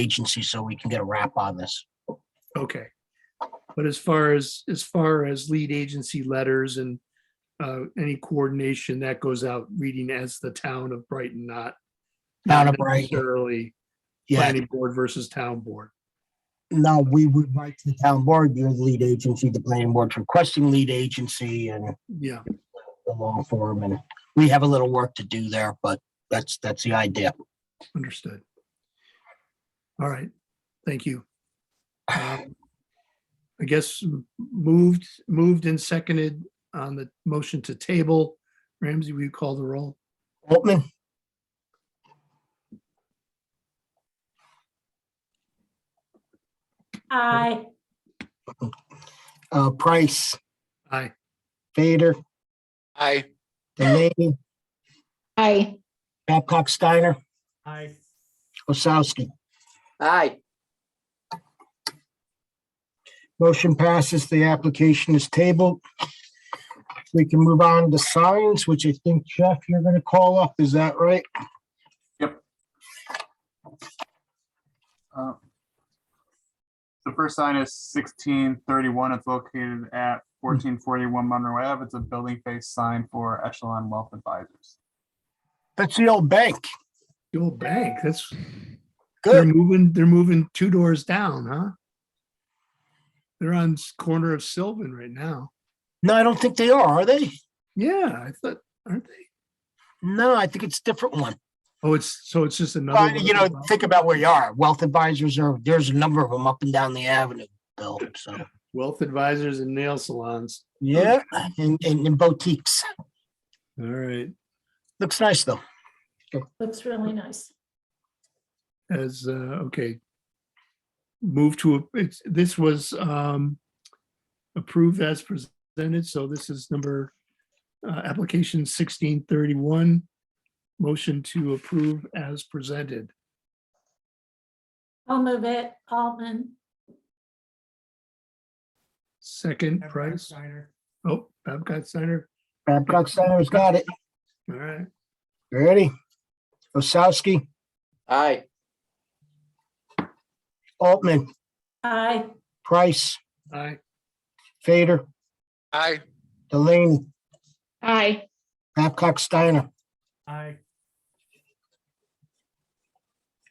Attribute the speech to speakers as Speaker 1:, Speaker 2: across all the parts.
Speaker 1: agency so we can get a wrap on this.
Speaker 2: Okay. But as far as, as far as lead agency letters and uh, any coordination that goes out reading as the town of Brighton, not
Speaker 1: Town of
Speaker 2: not
Speaker 1: Brighton.
Speaker 2: necessarily
Speaker 1: Yeah,
Speaker 2: planning board versus town board.
Speaker 1: no, we would write to the town board, you're the lead agency, the planning board's requesting lead agency and
Speaker 2: Yeah,
Speaker 1: the long form and we have a little work to do there, but that's, that's the idea.
Speaker 2: understood. All right, thank you. Um, I guess m- moved, moved and seconded on the motion to table. Ramsey, will you call the roll?
Speaker 1: Altman,
Speaker 3: Aye.
Speaker 1: uh, Price,
Speaker 2: Aye,
Speaker 1: Vader,
Speaker 4: Aye.
Speaker 1: Delaney,
Speaker 3: Aye.
Speaker 1: Babcock Steiner,
Speaker 4: Aye.
Speaker 1: Osowski.
Speaker 4: Aye.
Speaker 1: Motion passes. The application is tabled. We can move on to signs, which I think Jeff, you're going to call up. Is that right?
Speaker 5: Uh, The first sign is sixteen thirty-one. It's located at fourteen forty-one Monroe Ave. It's a building face sign for Echelon Wealth Advisors.
Speaker 1: That's the old bank.
Speaker 2: the old bank, that's, They're
Speaker 1: Good.
Speaker 2: moving, they're moving two doors down, huh? They're on s- corner of Sylvan right now.
Speaker 1: No, I don't think they are, are they?
Speaker 2: Yeah, I thought, aren't they?
Speaker 1: No, I think it's a different one.
Speaker 2: Oh, it's, so it's just another.
Speaker 1: Well,
Speaker 2: one
Speaker 1: you know,
Speaker 2: above?
Speaker 1: think about where you are. Wealth advisors are, there's a number of them up and down the avenue, Bill. So,
Speaker 2: Wealth advisors and nail salons.
Speaker 1: yeah, and, and and boutiques.
Speaker 2: All right,
Speaker 1: Looks nice, though.
Speaker 3: Looks really nice.
Speaker 2: as, uh, okay. Move to, a- it's, this was, um, approved as presented, so this is number, uh, application sixteen thirty-one. Motion to approve as presented.
Speaker 3: I'll move it, Altman.
Speaker 2: Second price. Oh, Babcock Steiner.
Speaker 1: Babcock Center's got it.
Speaker 2: All right.
Speaker 1: Ready? Osowski,
Speaker 4: Aye.
Speaker 1: Altman,
Speaker 3: Aye.
Speaker 1: Price,
Speaker 2: Aye.
Speaker 1: Fader,
Speaker 4: Aye.
Speaker 1: Delaney,
Speaker 3: Aye.
Speaker 1: Babcock Steiner.
Speaker 2: Aye.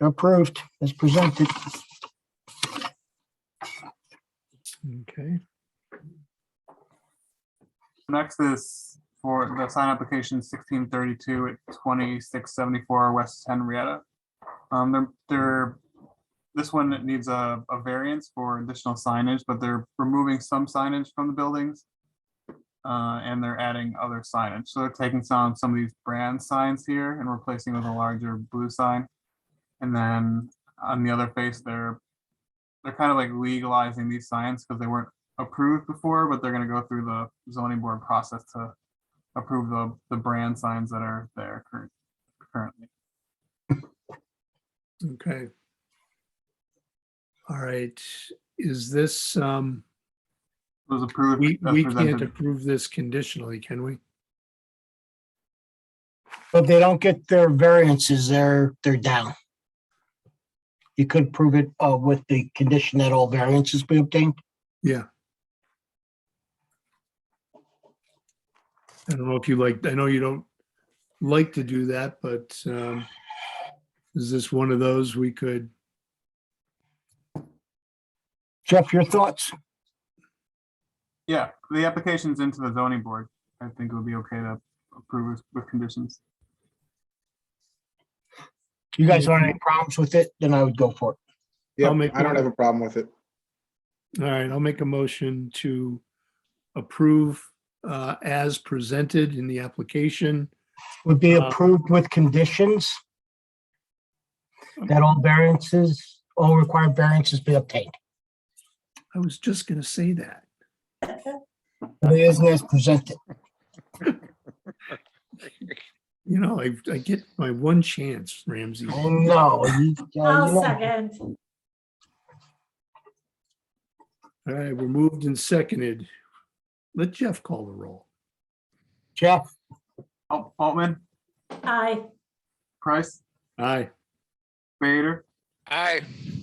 Speaker 1: Approved as presented.
Speaker 2: Okay.
Speaker 5: Next is for the sign application sixteen thirty-two at twenty-six seventy-four West Henrietta. Um, they're, they're, this one needs a, a variance for additional signage, but they're removing some signage from the buildings. Uh, and they're adding other signage. So they're taking some, some of these brand signs here and replacing with a larger blue sign. And then on the other face, they're, they're kind of like legalizing these signs because they weren't approved before, but they're gonna go through the zoning board process to approve the, the brand signs that are there curr- currently.
Speaker 2: Okay. All right. Is this, um,
Speaker 5: It was approved.
Speaker 2: we,
Speaker 5: as
Speaker 2: we can't
Speaker 5: presented.
Speaker 2: approve this conditionally, can we?
Speaker 1: But they don't get their variances, they're, they're down. You could prove it uh, with the condition that all variances be obtained.
Speaker 2: Yeah. I don't know if you like, I know you don't like to do that, but, um, is this one of those we could,
Speaker 1: Jeff, your thoughts?
Speaker 5: Yeah, the application's into the zoning board. I think it would be okay to approve with- with conditions.
Speaker 1: You guys want any problems with it? Then I would go for it.
Speaker 6: Yeah,
Speaker 2: I'll make
Speaker 6: I don't
Speaker 2: one.
Speaker 6: have a problem with it.
Speaker 2: all right, I'll make a motion to approve, uh, as presented in the application.
Speaker 1: Would be
Speaker 2: Uh,
Speaker 1: approved with conditions that all variances, all required variances be obtained.
Speaker 2: I was just gonna say that.
Speaker 1: But It isn't as presented.
Speaker 2: You know, I, I get my one chance, Ramsey.
Speaker 1: No. you- uh, you
Speaker 3: I'll
Speaker 1: know.
Speaker 3: second.
Speaker 2: All right, we're moved and seconded. Let Jeff call the roll.
Speaker 1: Jeff,
Speaker 5: Alt- Altman,
Speaker 3: Aye.
Speaker 5: Price,
Speaker 2: Aye.
Speaker 5: Vader,
Speaker 4: Aye.